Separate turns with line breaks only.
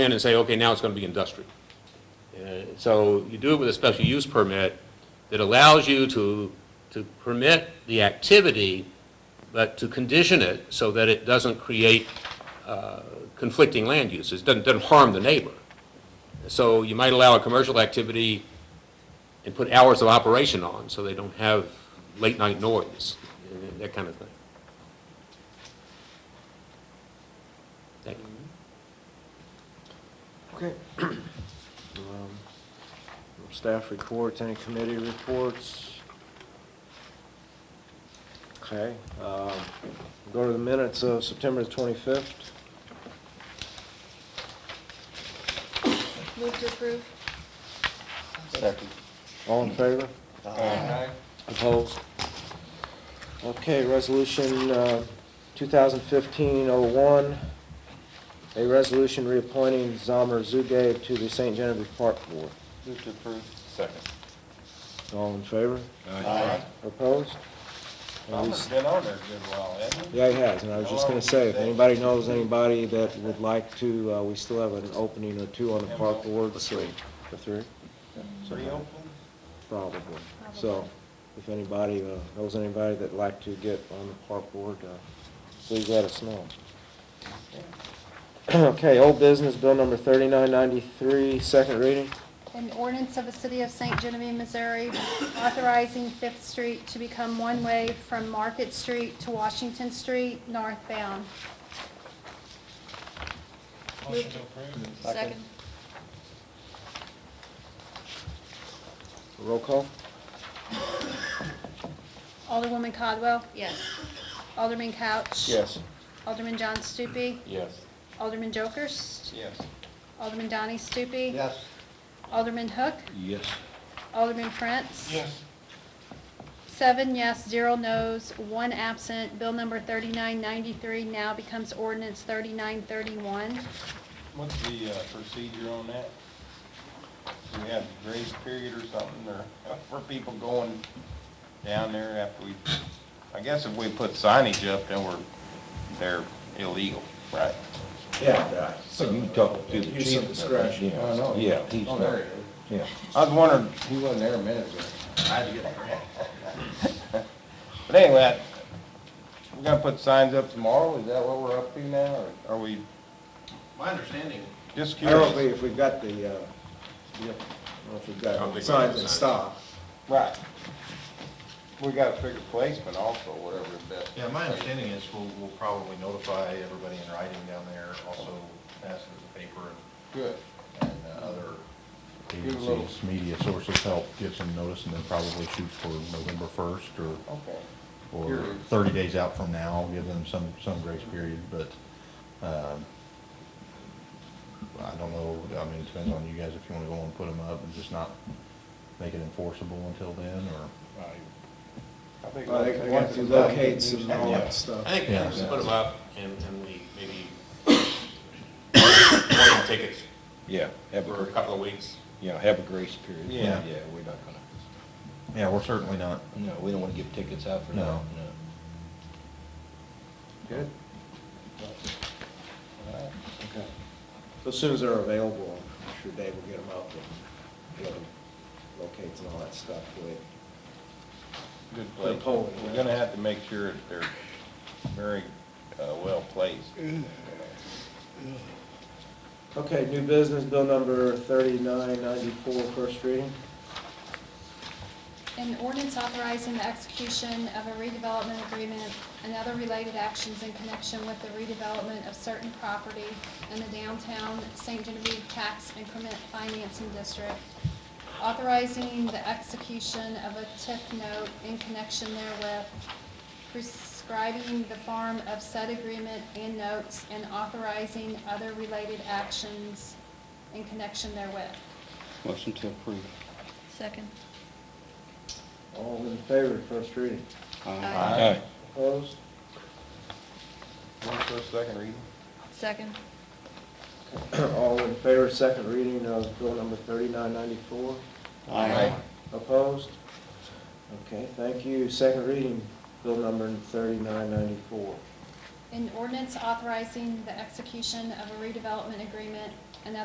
in and say, okay, now it's going to be industrial. Uh, So you do it with a special use permit that allows you to, to permit the activity, but to condition it so that it doesn't create uh, conflicting land uses, doesn't, doesn't harm the neighbor. So you might allow a commercial activity and put hours of operation on, so they don't have late-night noise, and that kind of thing. That-
Okay. Um, Staff reports, any committee reports? Okay, um, go to the minutes of September the 25th.
Move to approve.
Second.
All in favor? Opposed? Okay, resolution uh, 2015-01, a resolution reappointing Zomer Zuge to the St. Genevieve Park Board.
Move to approve. Second.
All in favor?
Aye.
Opposed?
Thomas been on there a good while, hasn't he?
Yeah, he has, and I was just gonna say, if anybody knows anybody that would like to, uh, we still have an opening or two on the park board, so. The three?
Three open?
Probably. So, if anybody, uh, knows anybody that'd like to get on the park board, uh, please let us know. Okay, old business, bill number thirty-nine ninety-three, second reading.
An ordinance of the City of St. Genevieve, Missouri, authorizing Fifth Street to become one-way from Market Street to Washington Street northbound.
Motion to approve.
Second.
Roll call?
Alderwoman Codwell?
Yes.
Alderman Couch?
Yes.
Alderman John Stupi?
Yes.
Alderman Jokers?
Yes.
Alderman Donnie Stupi?
Yes.
Alderman Hook?
Yes.
Alderman Prince?
Yes.
Seven yes, zero no's, one absent. Bill number 3993 now becomes ordinance 3931.
What's the uh, procedure on that? Do we have grace period or something, or for people going down there after we, I guess if we put signage up, then we're, they're illegal, right?
Yeah, so you can talk to the
Use of
chief.
discretion.
yeah.
I know. Oh,
Yeah, he's not, yeah.
I was wondering, he wasn't there a minute ago. I had to get But anyway, I- we're gonna put signs up tomorrow, is that what we're up to now, or are we
My understanding,
just
I don't think
curious?
if we've got the, uh,
Yep.
I don't know if
I
we've
don't
got
think
signs
we have
and
signs.
stop.
Right. We gotta figure placement also, whatever the best.
yeah, my understanding is we'll, we'll probably notify everybody in writing down there, also pass it to the paper
Good.
and, and uh, other
Give it a little-
agencies, media sources help give some notice and then probably shoot for November first or,
Okay.
or
Period.
thirty days out from now, give them some, some grace period, but, um, I don't know, I mean, it depends on you guys if you wanna go and put them up and just not make it enforceable until then, or,
I think
Well, they
once-
they
once
have to
it's done,
locate
you-
some and all that stuff.
I think we
Yeah.
just put them up and, and we maybe, warning tickets
Yeah, have
for a
a,
couple of weeks.
yeah, have a grace period.
Yeah.
Yeah, we're not gonna,
yeah, we're certainly not,
no, we don't wanna give tickets out for that,
No.
no.
Good. Okay. So as soon as they're available, I'm sure Dave will get them out and get them locates and all that stuff with.
Good
The
place.
polling,
We're
yeah.
gonna have to make sure that they're very, uh, well placed.
Okay, new business, bill number thirty-nine ninety-four, first reading.
An ordinance authorizing the execution of a redevelopment agreement and other related actions in connection with the redevelopment of certain property in the downtown St. Genevieve Tax Increment Financing District, authorizing the execution of a TIF note in connection therewith, prescribing the form of said agreement and notes, and authorizing other related actions in connection therewith.
Motion to approve.
Second.
All in favor, of first reading.
Aye.
Opposed?
One first, second reading?
Second.
All in favor, second reading of bill number thirty-nine ninety-four.
Aye.
Opposed? Okay, thank you. Second reading, bill number thirty-nine ninety-four.
An ordinance authorizing the execution of a redevelopment agreement